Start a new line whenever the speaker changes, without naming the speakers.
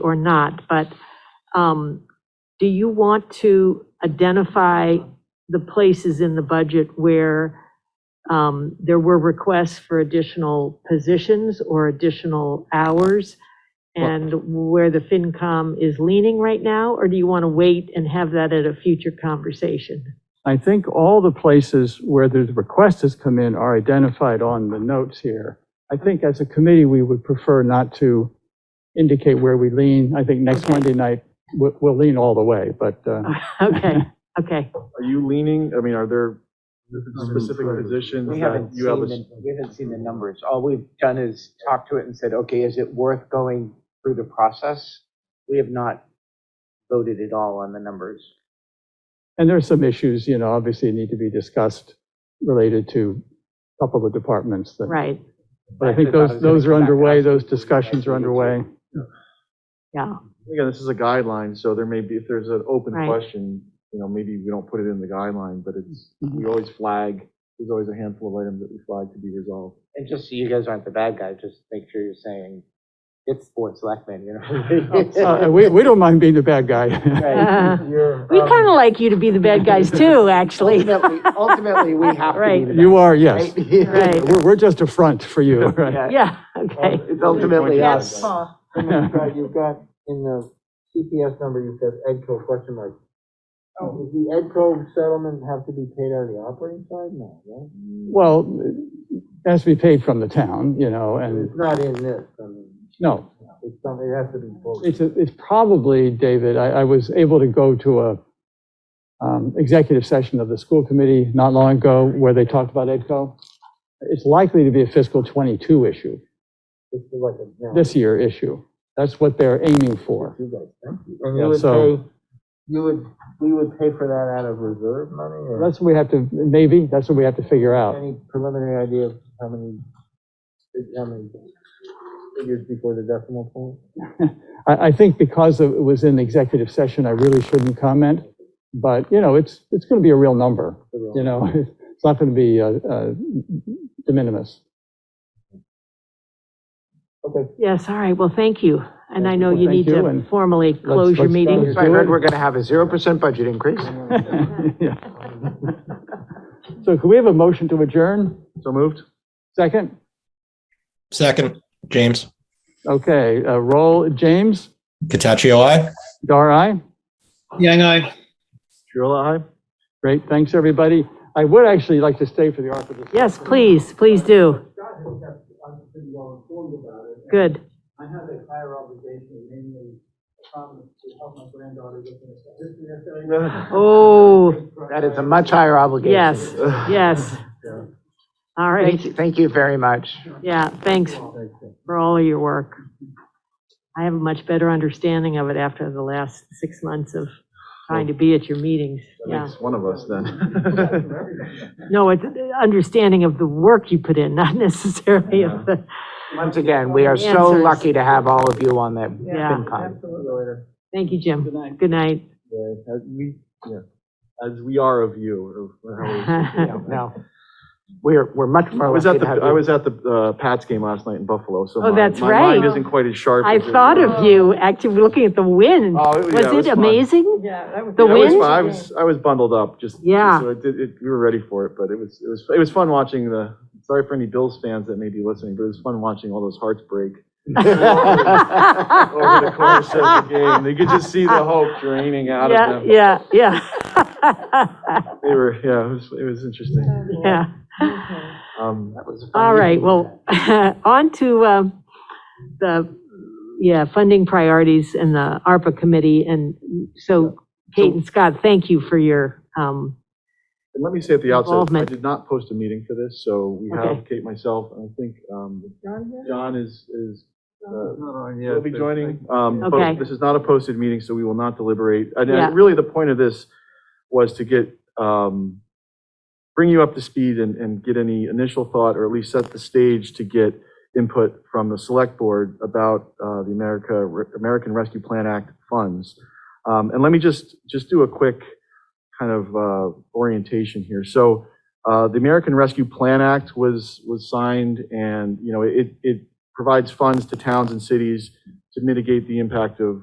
or not, but um, do you want to identify the places in the budget where um, there were requests for additional positions or additional hours? And where the FinCom is leaning right now? Or do you want to wait and have that at a future conversation?
I think all the places where the request has come in are identified on the notes here. I think as a committee, we would prefer not to indicate where we lean. I think next Monday night, we'll we'll lean all the way, but uh,
Okay, okay.
Are you leaning, I mean, are there specific
Unemployed.
positions
We
that
haven't
you
seen
have? a
the, we haven't seen the numbers. All we've done is talk to it and said, okay, is it worth going through the process? We have not voted at all on the numbers.
And there are some issues, you know, obviously need to be discussed related to a couple of departments that,
Right,
but I think those, those are underway, those discussions are underway.
yeah,
Again, this is a guideline, so there may be, if there's an open
Right.
question, you know, maybe we don't put it in the guideline, but it's, we
Mm-hmm.
Mhm.
always flag, there's always a handful of items that we flag to be resolved.
And just so you guys aren't the bad guy, just make sure you're saying it's board selectmen, you
Uh,
know?
We, we don't mind being the bad guy.
Right. You're,
We
um,
kind of like you to be the bad guys too, actually.
Ultimately, ultimately, we have to be
Right.
the.
You are, yes.
bad guy,
Right.
We're, we're just a front for you, right?
Yeah.
Yeah, okay.
It's ultimately
Yes.
us.
And you've got, you've got, in the CPS number, you've got EdCo question mark.
Oh.
Does the EdCo settlement have to be paid out of the operating side? No, right?
Mm.
Well, it has to be paid from the town, you know, and,
It's not in this, I mean,
no,
it's something, it has to be voted.
it's, a- it's probably, David, I, I was able to go to a um, executive session of the school committee not long ago where they talked about EDCO. It's likely to be a fiscal 22 issue.
It's like a, you know,
this year issue. That's what they're aiming for.
you guys, thank you. And
Yeah,
you would
so-
pay, you would, we would pay for that out of reserve money or
That's what we have to, maybe, that's what we have to figure out.
any preliminary idea of how many, how many figures before the decimal point?
I, I think because of- it was in executive session, I really shouldn't comment. But, you know, it's, it's going to be a real number, you know? It's not going to be uh, uh, de minimis.
Okay.
Yes, all right, well, thank you. And I know
Well,
you
thank
need
you,
to
and
formally close your
let's, uh,
meeting.
So I heard we're going to have a zero percent budget increase.
Yeah. So can we have a motion to adjourn?
So moved?
Second?
Second, James.
Okay, uh, roll, James,
Cataccio, I.
Dar, aye?
Yang I.
Triola, aye?
Great, thanks, everybody. I would actually like to stay for the ARPA discussion.
Yes, please, please do.
I'm pretty well informed about it.
Good.
I have a higher obligation, namely a promise to help my granddaughter get into history essay.
Oh,
That is a much higher obligation.
yes, yes. All
Thank
right,
you, thank you very much.
yeah, thanks for all of your work. I have a much better understanding of it after the last six months of trying to be at your meetings,
That
yeah.
makes one of us then.
No, it's uh, understanding of the work you put in, not necessarily of the,
Once again, we are so
Answers.
lucky to have all of you on the
Yeah.
FinCon.
thank you, Jim. Good night.
Yeah, As we, yeah, as we are of you, or how we-
Yeah, No, we're, we're much
I
more
was
lucky
at the,
to have
I
you.
was at the uh, Pats game last night in Buffalo, so.
Oh,
my-
that's
My mind
right.
isn't quite as sharp.
I
as it-
thought of you, actually, looking at the wind.
Oh, it- yeah, it
Was
was
it
fun.
amazing?
Yeah, that was.
The
Yeah, it was
wind?
fun. I was, I was bundled up, just.
Yeah.
So it did, it, we were ready for it, but it was, it was, it was fun watching the, sorry for any Bills fans that may be listening, but it was fun watching all those hearts break over the course of the game. They could just see the hope draining out
Yeah,
of them.
yeah, yeah.
They were, yeah, it was, it was interesting.
Yeah.
Um,
That was a fun
All right,
meeting.
well, on to um, the, yeah, funding priorities and the ARPA committee. And so Kate and Scott, thank you for your, um,
And let me say at the outset, I
Involvement.
did not post a meeting for this, so we
Okay.
have Kate, myself, and I think um, John is, is, uh, will be joining. Um, but
Okay.
This is not a posted meeting, so we will not deliberate. And
Yeah.
uh, really, the point of this was to get, um, bring you up to speed and, and get any initial thought, or at least set the stage to get input from the select board about uh, the America, American Rescue Plan Act funds. Um, And let me just, just do a quick kind of uh, orientation here. So uh, the American Rescue Plan Act was, was signed and, you know, it, it provides funds to towns and cities to mitigate the impact of